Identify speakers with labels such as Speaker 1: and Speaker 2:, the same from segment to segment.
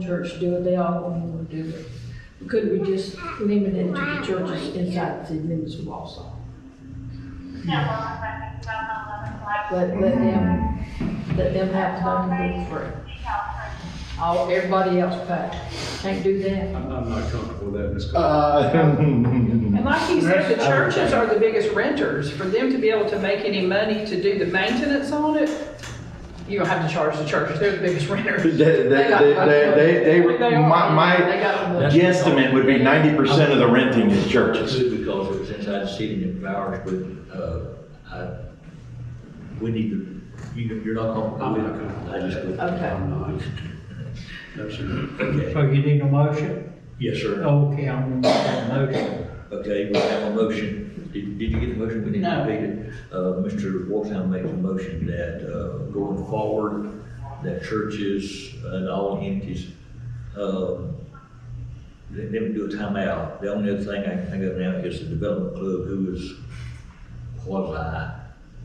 Speaker 1: church do it, they all want to do it. Could we just limit it to the churches inside the city limits of Wausau? Let, let them, let them have something for free. All, everybody else pay. Can't do that.
Speaker 2: I'm, I'm not comfortable with that, Ms. Cole.
Speaker 3: Uh,
Speaker 4: And like he said, the churches are the biggest renters. For them to be able to make any money to do the maintenance on it, you don't have to charge the church. They're the biggest
Speaker 3: They,
Speaker 4: renters.
Speaker 3: they, they, they, they,
Speaker 4: are.
Speaker 3: my, my
Speaker 4: They got the-
Speaker 3: guesstimate would be ninety percent of the renting is churches.
Speaker 5: Good, because it was inside the city and it was ours, but, uh, I, we need to, you, you're not comfortable.
Speaker 2: I'm not comfortable.
Speaker 5: I just. would-
Speaker 4: Okay.
Speaker 2: I'm not. Absolutely.
Speaker 5: Okay,
Speaker 6: So you need a motion?
Speaker 5: yes, sir.
Speaker 6: Okay, I'm gonna make a motion.
Speaker 5: Okay, we have a motion. Did, did you get the motion? We need to
Speaker 4: No.
Speaker 5: repeat it. Uh, Mr. Wolfham makes a motion that, uh, going forward, that churches and all entities, um, let them do a timeout. The only other thing I can think of now is the development club, who is quasi,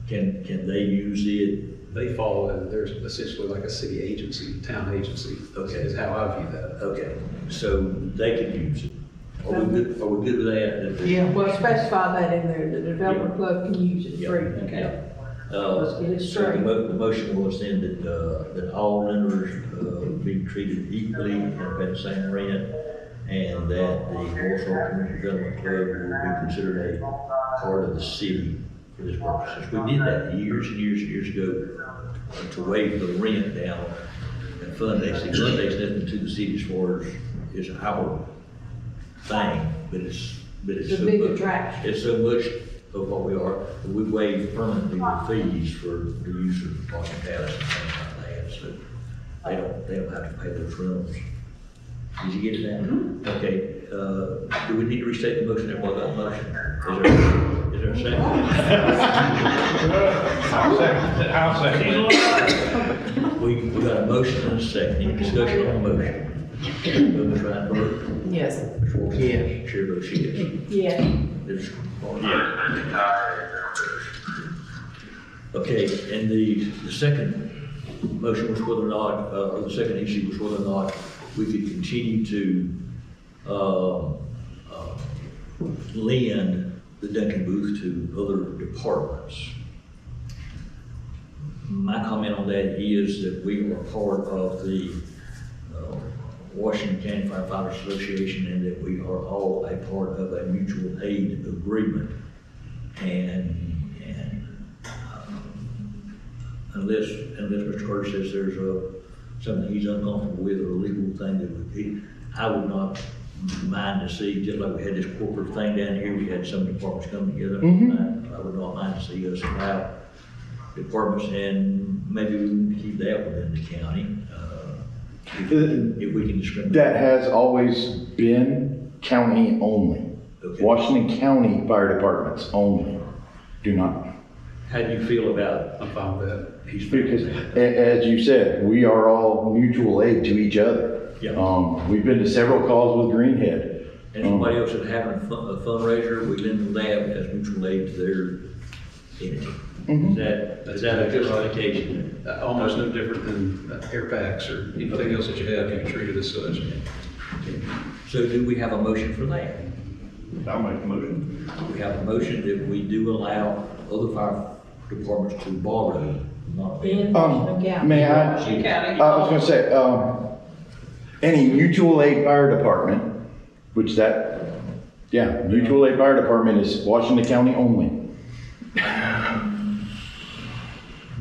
Speaker 5: can, can they use it?
Speaker 2: They fall, in- they're essentially like a city agency, town agency, is how I view that.
Speaker 5: Okay, so they can use it. Are we good, are we good with that? That-
Speaker 4: Yeah.
Speaker 1: Well, specify that in there, the development club can use it
Speaker 5: Yeah,
Speaker 1: free.
Speaker 5: yeah.
Speaker 1: Let's get it
Speaker 5: Uh, so the
Speaker 1: straight.
Speaker 5: mo- the motion was then that, uh, that all renters, uh, be treated equally and pay the same rent, and that the Warsaw Community Development Club will be considered a part of the city for this purpose. We did that years and years and years ago, uh, to waive the rent down and fund days. See, fund days nothing to the city as far as, is our thing, but it's, but it's.
Speaker 1: It's a
Speaker 5: so
Speaker 1: big
Speaker 5: much-
Speaker 1: attraction.
Speaker 5: it's so much of what we are, that we waive permanently the fees for the use of parking pads and things like that, so they don't, they don't have to pay those rentals. Did you get it down?
Speaker 1: Mm-hmm.
Speaker 5: Okay, uh, do we need to restate the motion, and what about the motion? Is there, is there a
Speaker 3: I'll
Speaker 5: second? We, we got a motion and a second, any discussion on the motion? Ms. Reinberg,
Speaker 4: Yes.
Speaker 5: Ms. Wilson?
Speaker 6: Yes.
Speaker 5: Chair votes yes.
Speaker 1: Yeah.
Speaker 5: There's- Okay, and the, the second motion was whether or not, uh, or the second issue was whether or not we could continue to, uh, uh, lend the Duncan booth to other departments. My comment on that is that we are part of the uh, Washington County Firefighters Association and that we are all a part of a mutual aid agreement. And, and um, unless, unless Mr. Carter says there's a, something he's uncomfortable with or a legal thing that would be, I would not mind to see, just like we had this corporate thing down here, we had some departments come together. I I would not mind to see us allow departments and maybe we can keep that within the county. uh, If if we can discriminate.
Speaker 3: That has always been county only.
Speaker 5: Okay.
Speaker 3: Washington County Fire Departments only. Do not,
Speaker 5: How do you feel about
Speaker 2: I'm fine with that. He's.
Speaker 3: because a- as you said, we are all mutual aid to each other.
Speaker 5: Yeah.
Speaker 3: Um, we've been to several calls with Greenhead. Um,
Speaker 5: anybody else that having a fun- a fundraiser, we lend them as mutual aid to their entity? Is that, is that a good allocation?
Speaker 2: Uh, Almost no different than uh, air packs or anything else that you have, you can treat it as such.
Speaker 5: So do we have a motion for that?
Speaker 3: I'll make the motion.
Speaker 5: We have a motion that we do allow other fire departments to borrow, not
Speaker 1: In
Speaker 5: be.
Speaker 1: Washington
Speaker 3: Um,
Speaker 1: County.
Speaker 3: may I? Uh,
Speaker 4: Washington County.
Speaker 3: I was gonna say, um, any mutual aid fire department, which that, yeah, mutual aid fire department is Washington County only.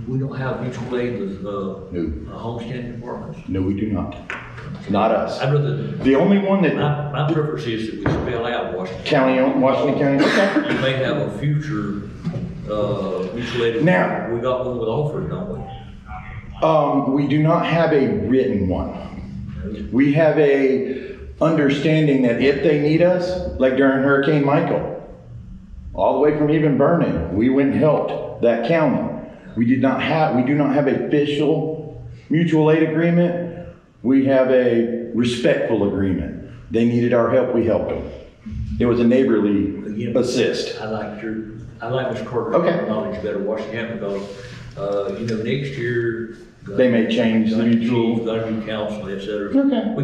Speaker 5: We don't have mutual aid with, uh,
Speaker 3: No.
Speaker 5: uh, homestead departments.
Speaker 3: No, we do not. Not us.
Speaker 5: I'd rather,
Speaker 3: The only one that
Speaker 5: my, my preference is that we spell out Washington.
Speaker 3: county, own- Washington County, okay.
Speaker 5: We may have a future, uh, mutual aid.
Speaker 3: Now-
Speaker 5: We got one with Alfred, don't we?
Speaker 3: Um, we do not have a written one. We have a understanding that if they need us, like during Hurricane Michael, all the way from even burning, we went and helped that county. We did not have, we do not have a official mutual aid agreement. We have a respectful agreement. They needed our help, we helped them. It was a neighborly
Speaker 5: Again.
Speaker 3: assist.
Speaker 5: I like your, I like Ms. Carter's
Speaker 3: Okay.
Speaker 5: knowledge better, Washington, because, uh, you know, next year.
Speaker 3: They may change the
Speaker 5: Gun
Speaker 3: mutual-
Speaker 5: chief, Gun council, et cetera.
Speaker 3: Okay.
Speaker 5: We